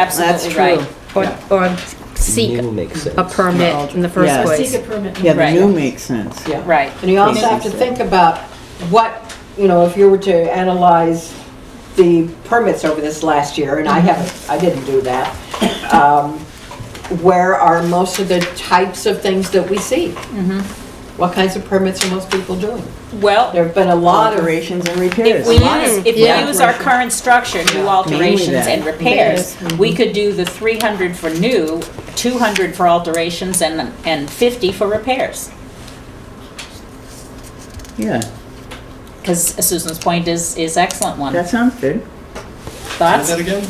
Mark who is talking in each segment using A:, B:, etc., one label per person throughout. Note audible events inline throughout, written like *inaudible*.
A: Absolutely
B: That's
A: right.
B: true.
C: Or, or seek
D: New makes sense.
C: a permit in the first
B: Yes.
C: place.
E: Seek a permit.
B: Yeah, the
A: Right.
B: new makes sense.
F: Yeah.
A: Right.
F: And you also have to think about what, you know, if you were to analyze the permits over this last year, and I
A: Mm-hmm.
F: haven't, I didn't do that, um, where are most of the types of things that we see?
A: Mm-hmm.
F: What kinds of permits are most people doing?
A: Well,
F: There have been a lot of,
B: Alterations and repairs.
A: if we use, if we
F: Yeah.
A: use our current structure, new alterations and repairs, we could do the three hundred for new, two hundred for alterations and, and fifty for repairs.
B: Yeah,
A: Because Susan's point is, is excellent one.
B: that sounds good.
A: Thoughts?
G: Say that again?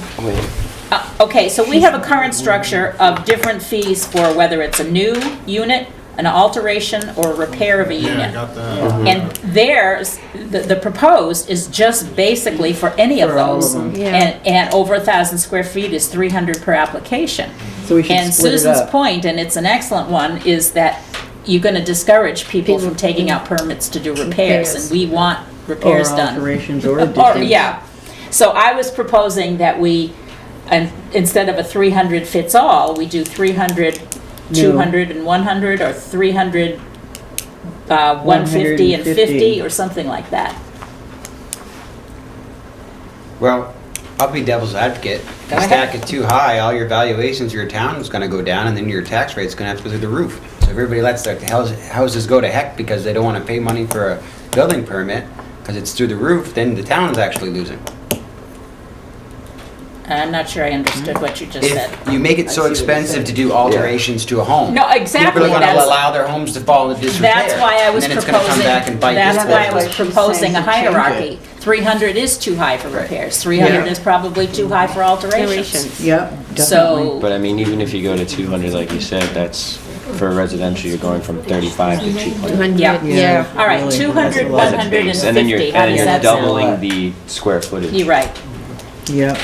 A: Uh, Okay, so we have a current structure of different fees for whether it's a new unit, an alterration, or a repair of a
G: Yeah, I
A: unit.
G: got that.
A: And theirs, the, the proposed is just basically for any of
B: For all of
A: those.
B: them.
C: Yeah.
A: And, and over a thousand square feet is three hundred per application.
B: So we should
A: And
B: split it
A: Susan's
B: up.
A: point, and it's an excellent one, is that you're gonna discourage people from
C: People-
A: taking out permits to do repairs, and
C: Repairs.
A: we want
B: Or uh,
A: repairs done.
B: alterations or
A: *laughs* Or,
B: additions.
A: yeah, so I was proposing that we, and instead of a 300 fits all, we do 300,
B: No.
A: 200 and 100, or 300, uh, 150 and 50,
B: 150.
A: or something like that.
H: Well, I'll be devil's advocate. If
A: Go
H: you
A: ahead.
H: stack it too high, all your valuations, your town is gonna go down, and then your tax rate's gonna have to go through the roof. So if everybody lets their house- houses go to heck because they don't wanna pay money for a building permit, because it's through the roof, then the town's actually losing.
A: I'm not sure I understood what you just said.
H: If you make it so
F: I see what you're
H: expensive to do alterations to a home.
A: No, exactly,
H: People are gonna
A: that's-
H: allow their homes to fall into disrepair.
A: That's why I was
H: and then it's gonna come
A: proposing,
H: back and bite
A: that's
H: this
A: why I
H: business.
A: was proposing a
B: it.
A: hierarchy. 300 is too high for
H: Right.
A: repairs, 300
B: Yeah.
A: is probably too high for alterations.
B: Yep, definitely.
A: So,
D: But I mean, even if you go to 200, like you said, that's, for residential, you're going from 35 to 200.
C: 200,
A: Yeah.
C: yeah.
A: all right,
B: Really,
A: 200,
B: that's a lot.
D: That's a base, And then you're,
A: 150, how
D: and
A: does
D: you're
A: that sound?
D: doubling the square footage.
A: You're right.
B: Yep,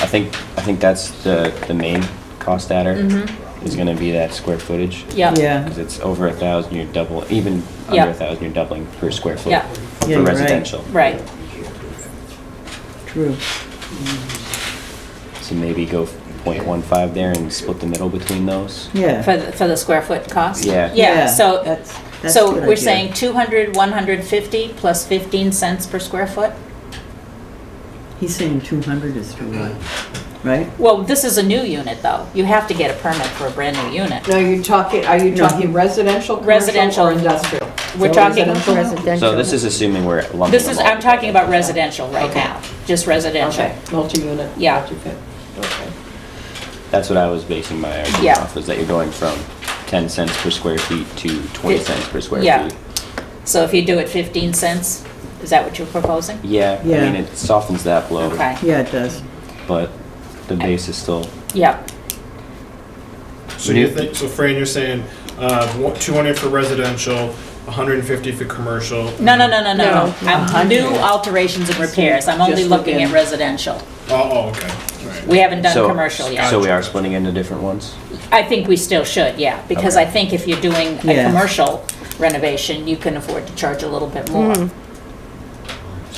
D: I think, I think that's the, the main cost adder, is gonna be that square footage.
A: Mm-hmm. Yeah.
B: yeah,
D: Because it's over a 1,000, you're double, even
A: Yeah.
D: under a 1,000, you're doubling per square foot.
A: Yeah.
B: Yeah,
D: For
B: you're right.
D: residential.
A: Right.
B: true.
D: So maybe go 0.15 there and split the middle between those.
A: For,
B: Yeah,
A: the- for the square foot cost?
D: Yeah.
A: Yeah,
B: Yeah,
A: so,
B: that's- that's a
A: so
B: good
A: we're
B: idea.
A: saying 200, 150 plus 15 cents per square foot?
B: he's saying two hundred is too high, right?
A: Well, this is a new unit, though. You have to get a permit for a brand-new unit.
F: now you're talking, are you
B: No.
F: talking residential, commercial,
A: Residential.
F: or industrial?
A: We're
B: So is
A: talking,
B: that
C: Residential.
D: So this is assuming we're lumping them all.
A: this is, I'm talking
D: together.
A: about residential right now, just residential.
F: Okay, multi-unit.
A: Yeah.
F: multi-family. Okay.
D: That's what I was basing my argument
A: Yeah.
D: off, was that you're going from 10 cents per square feet to 20
A: Fif-
D: cents per square
A: yeah.
D: feet.
A: So if you do it 15 cents, is that what you're proposing?
D: Yeah, I
B: Yeah.
D: mean, it softens that blow,
A: Okay,
B: Yeah, it does.
D: but the base is still,
A: yeah,
G: So you think, so Fran, you're saying, uh, one- 200 for residential, 150 for commercial?
A: no, no, no, no, no,
C: No.
A: no. I'm new alterations and repairs, I'm only
F: Just
A: looking at
F: looking.
A: residential.
G: Oh, oh, okay, all right.
A: We haven't done
D: So-
A: commercial yet.
D: so we are splitting into different ones?
A: I think we still should, yeah, because I think if you're doing a
B: Yeah.
A: commercial renovation, you can afford to charge a little bit more.
C: Mm-hmm.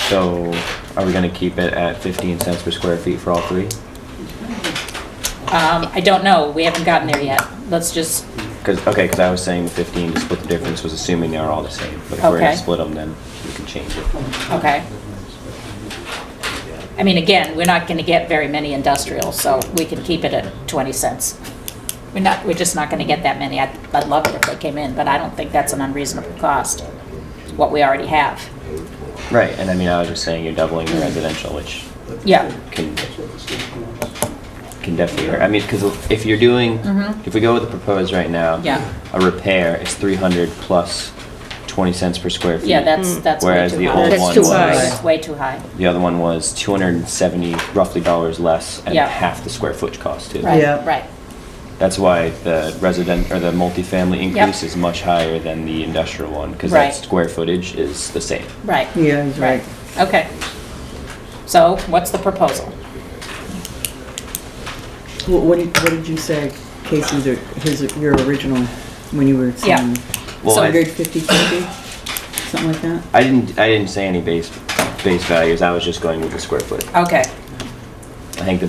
D: So are we gonna keep it at 15 cents per square feet for all three?
A: Um, I don't know, we haven't gotten there yet. Let's just,
D: Because, okay, because I was saying 15 to split the difference was assuming they are all the same, but if we're
A: Okay.
D: gonna split them, then we can change it.
A: okay. I mean, again, we're not gonna get very many industrial, so we can keep it at 20 cents. We're not, we're just not gonna get that many. I'd, I'd love it if they came in, but I don't think that's an unreasonable cost, what we already have.
D: Right, and I mean, I was just saying you're doubling
A: Mm.
D: the residential, which
A: Yeah,
D: can, can definitely hurt. I mean, because if you're doing, if we go with the proposed right now,
A: Mm-hmm. Yeah.
D: a repair is 300 plus 20 cents per square feet.
A: yeah, that's, that's way
D: Whereas
A: too
D: the
A: high.
D: old
C: That's
D: one
C: too
D: was,
A: It's way too high.
D: the other one was 270 roughly dollars less and
A: Yeah.
D: half the square foot cost too.
A: Right,
B: Yeah.
A: right.
D: That's why the resident, or the multifamily increase is much higher than the industrial one, because
A: Right.
D: that square footage is the same.
A: Right.
B: Yeah, he's right.
A: Okay. So what's the proposal?
B: Wh- What did, what did you say, Casey, that his, your original, when you were
A: Yeah.
B: saying
D: Well,
A: So
D: I-
B: hundred fifty, fifty? Something like that?
D: I didn't, I didn't say any base, base values, I was just going with the square foot.
A: Okay.
D: I think the